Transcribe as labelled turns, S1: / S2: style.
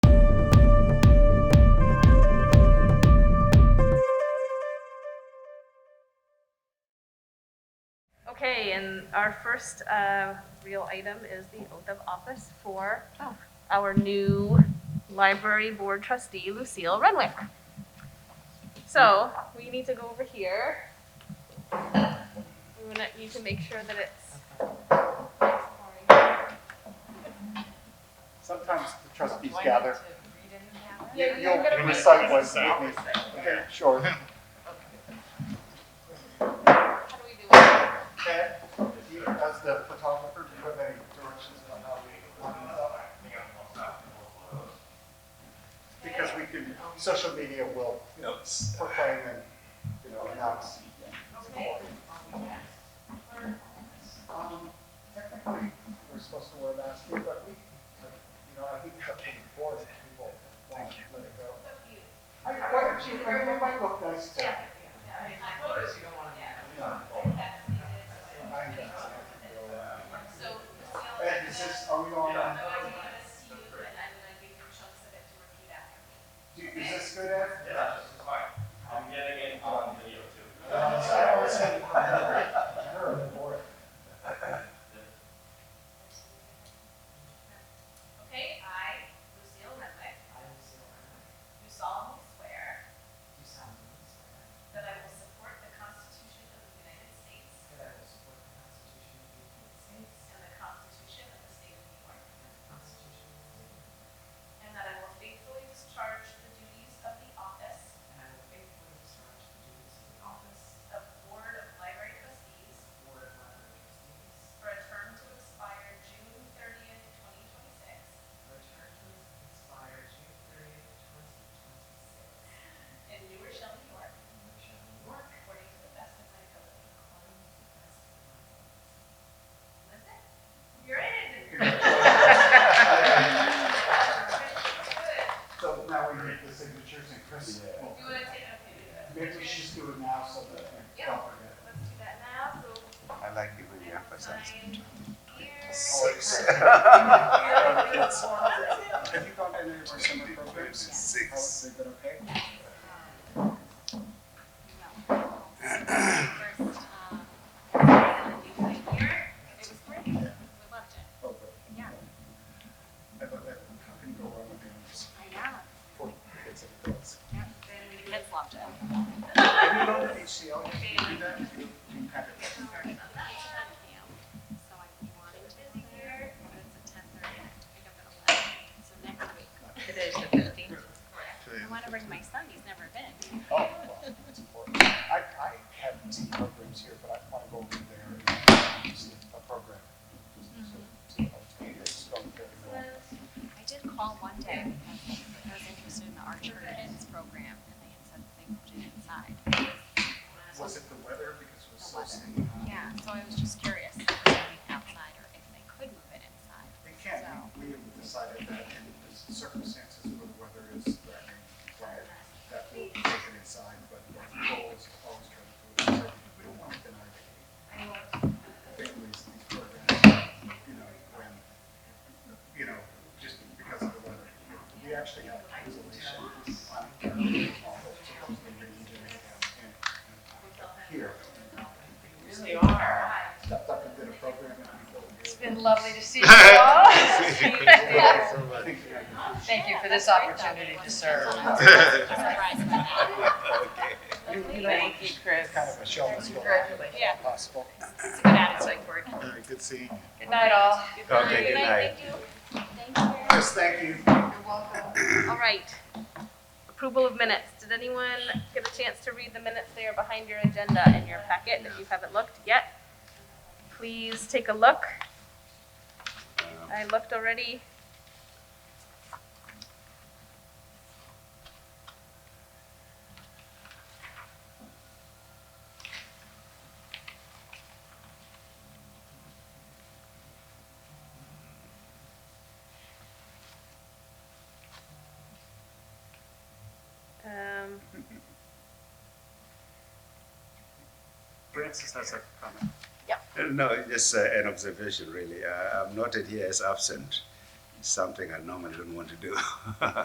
S1: Okay, and our first uh, real item is the oath of office for our new library board trustee, Lucille Renwick. So we need to go over here. We wanna- need to make sure that it's. Sorry.
S2: Sometimes the trustees gather. You-
S1: Yeah,
S2: You'll
S1: you're gonna-
S2: recite one with me. Okay, sure.
S1: How do we do it?
S2: Ted, do you- as the photographer, do you have any directions on how we line this up? Because we can, social media will proclaim and, you know, announce. Um, Technically, we're supposed to wear masks, here, but we, you know, I think that before that people won't let it go. I, why, she, I might look nice too. I guess. Ed, is this, are we on? Do- Is this good, Ed?
S3: Yeah, this is fine. I'm getting it on video
S2: Uh,
S3: too.
S2: I always said, her, or.
S4: Okay, I, Lucille Renwick,
S5: I will solemnly
S4: do solemnly swear
S5: swear
S4: that I will support the Constitution of the United States
S5: that I will support the Constitution of the United States
S4: and the Constitution of the State of New York,
S5: and the Constitution of the State of New
S4: and that I will faithfully discharge the duties of the office
S5: York, and I will faithfully discharge the duties of the office
S4: of Board of Library Trustees
S5: of Board of Library Trustees
S4: for a term to expire June thirtieth, twenty twenty-six,
S5: for a term to expire June 30th, 2026,
S4: in New Rochelle, New York,
S5: in which I will work
S4: according to the best of my ability.
S5: according to the best of my abilities.
S4: That's it. You're in. Good.
S2: So now we need the signatures and Chris, well,
S4: You wanna take, okay, do that.
S2: maybe we should just do it now so that we don't forget.
S4: Let's do that now, so.
S6: I like it when you emphasize it.
S4: Six.
S6: Six.
S2: Have you gone to any of our summer programs?
S6: Six.
S2: How- They've been okay? Oh, good.
S7: Yeah.
S2: I thought that, how can you go wrong with animals?
S7: I know.
S2: Poor kids and girls.
S7: Yep. The kids loved it.
S2: And you know, the HCL, you do that, you you kind of.
S7: So I'm wanting to be here, but it's at ten thirty, I have to pick up at eleven, so next week. It is the fifteenth. I wanna bring my son, he's never been.
S2: Oh, well, that's important. I, I have some programs here, but I want to go over there and see a program. So, it's going very well.
S7: I did call one day because I was interested in the Archer Kids program, and they had said that they moved it inside.
S2: Was it the weather because it was so
S7: The weather.
S2: steamy?
S7: Yeah, so I was just curious if it would be outside or if they could move it inside.
S2: They can't, we have decided that in the circumstances where the weather is threatening, that, that we'll take it inside, but the goal is always try to do it inside. We don't want to deny the families these programs, you know, when, you know, just because of the weather. We actually have insulation on our wall, so we can use it again. here.
S5: Really are.
S2: Stepped up and did a program and people. It's
S8: Been lovely to see you all. Thank you for this opportunity to serve.
S7: Surprised by that.
S8: Thank you, Chris.
S2: Kind of a show that's going on,
S8: Congratulations. Yeah.
S2: possible.
S7: It's a good attitude.
S2: All right, good seeing you.
S8: Good night, all.
S6: Okay, good night.
S7: Thank you.
S2: Chris, thank you.
S1: All right. Approval of minutes. Did anyone get a chance to read the minutes They are behind your agenda in your packet if you haven't looked yet? Please take a look. I looked already. Um,
S2: Francis has a comment.
S6: Uh, No, just uh, an observation, really. Uh, I'm noted here as absent. Something I normally don't want to do.